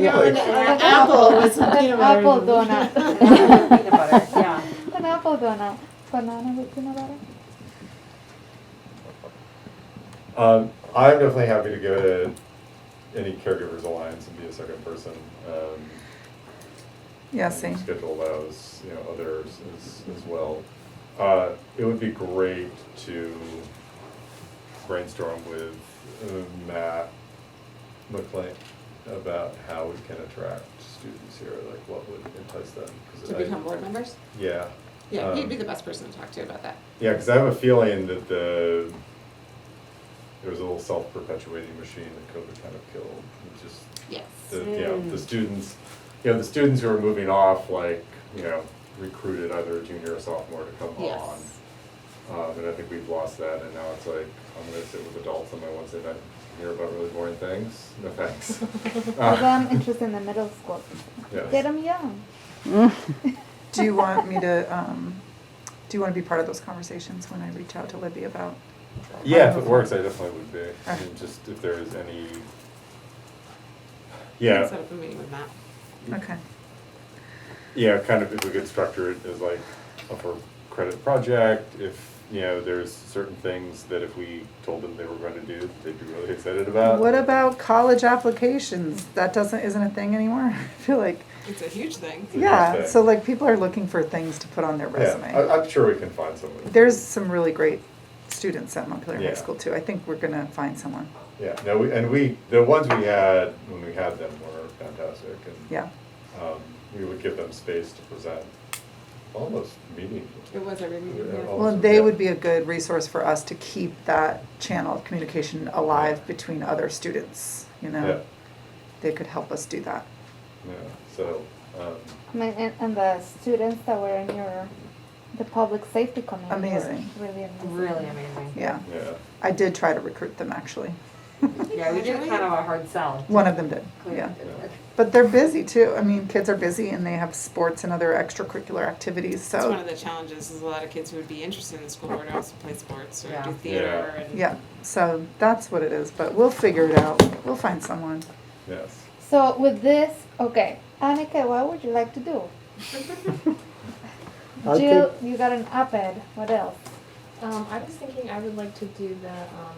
Yeah. an an apple with some peanut butter. Apple donut. Peanut butter, yeah. An apple donut. Banana with peanut butter. Um, I'm definitely happy to go to any caregivers alliance and be a second person. Um, Yeah, and same. Schedule allows, you know, others as, as well. Uh, it would be great to brainstorm with uh, Matt McLean about how we can attract students here, like what would entice them. 'cause To I- become board members? Yeah. Yeah, he'd be um, the best person to talk to about that. yeah, because I have a feeling that the there was a little self-perpetuating machine that COVID kind of killed. It just Yes. the you know, the students, you know, the students who are moving off, like you know, recruited either a junior or sophomore to come on. Yes. Um, and I think we've lost that, and now it's like I'm going to sit with adults on my Wednesday night and hear about really boring things. No thanks. Ah. Uh, Because I'm interested in the middle school. Yeah. Get them young. Do you want me to, um, do you want to be part of those conversations when I reach out to Libby about? Yeah, if it works, I definitely would be. I Okay. mean, just if there is any. Let's Yeah, Set up a meeting with Matt. Okay, Yeah, kind of if we could structure it as like a for credit project, if, you know, there's certain things that if we told them they were gonna do, that they'd be really excited about. what about college applications? That doesn't, isn't a thing anymore? I feel like, It's a huge thing. It's a huge yeah, thing. so like people are looking for things to put on their Yeah, resume. I, I'm sure we can find someone. There's some really great students at Montpelier Yeah. High School too. I think we're gonna find someone, Yeah, no, we- and we, the ones we had, when we had them were fantastic and, yeah. um, we would give them space to present almost meeting. It was every meeting, Yeah, yeah. all- Well, Also, and they yeah. would be a good resource for us to keep that channel of communication alive between other students, you Yeah, know? They could help us do that. yeah, so, um, I mean, and, and the students that were in your, the public safety committee. were Amazing. Really amazing. Really amazing. Yeah, yeah, I did try to recruit them, actually. Yeah, we did kind of a hard sell. One of them did, yeah. But they're busy too. I mean, kids are busy and they have sports and other extracurricular activities, That's one of so, the challenges, is a lot of kids who would be interested in the school board also play sports or Yeah. do Yeah. theater and. yeah. So that's what it is, but we'll figure it out. We'll find someone. yes. So with this, okay, Annika, what would you like to do? I Jill, you got an op-ed. What else? Um, I was thinking I would like to do the um,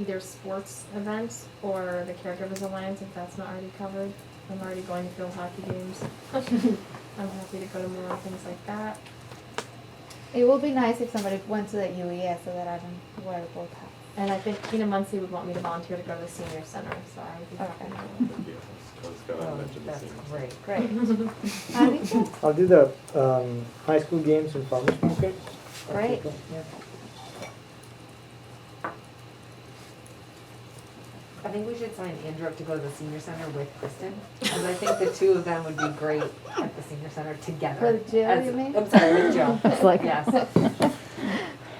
either sports events or the caregivers alliance if that's not already covered. I'm already going to field hockey games. I'm happy to go to more things like that. It would be nice if somebody went to the UEA so that I don't wear both hats. And I think Tina Muncy would want me to volunteer to go to the senior center, so I would be happy to Okay. do Yeah, I that. was gonna Oh, mention the That's same. Great. great. Annika, I'll do the um, high school games and farmers markets. great. Yeah. I think we should sign Andrew up to go to the senior center with Kristen, because I think the two of them would be great at the senior center together. With Jill, As- you mean? I'm sorry, with Jill. It's like- Yes. I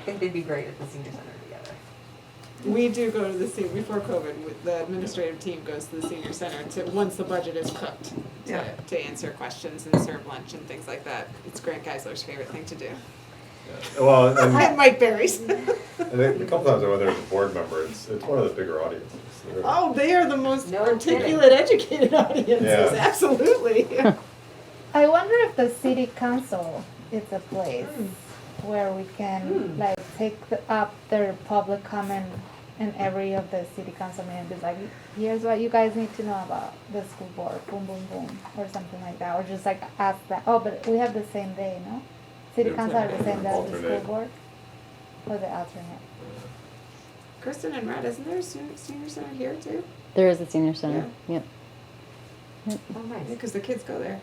think they'd be great at the senior center together. We do go to the senior, before COVID, w- the administrative team goes to the senior center to, once the budget is cooked, Yeah. to, to answer questions and serve lunch and things like that. It's Grant Geisler's favorite thing to do. Yeah. Well, and And Mike Berry's. And then a couple times I went there as a board member, it's, it's one of the bigger audiences. They're- Oh, they are the most No articulate, educated audiences, Yeah. absolutely. I wonder if the city council is a place where we can like take the, up their public comment in every of the city council meeting, be like, here's what you guys need to know about the school board, boom, boom, boom, or something like that, or just like ask that, oh, but we have the same day, no? City Yeah. council have the same day as the school Alternate. board? Or the alternate? Kristen and Red, isn't there a senior, senior center here too? There is a senior center, yep. Oh, nice. Because the kids go there.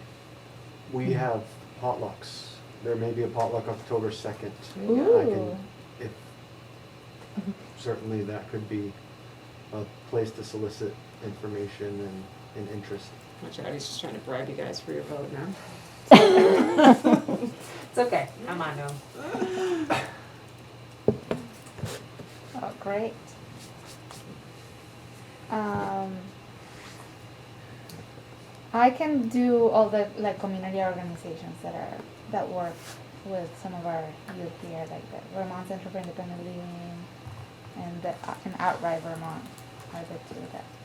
We have potlucks. There may be a potluck October second. I Ooh, can, if, certainly that could be a place to solicit information and, and interest. Watch out, he's just trying to bribe you guys for your vote now. It's okay, I'm on to him. oh, great. Um, I can do all the like community organizations that are that work with some of our youth here, like the Vermont Center for Independent Living and the, and Outright Vermont are the two that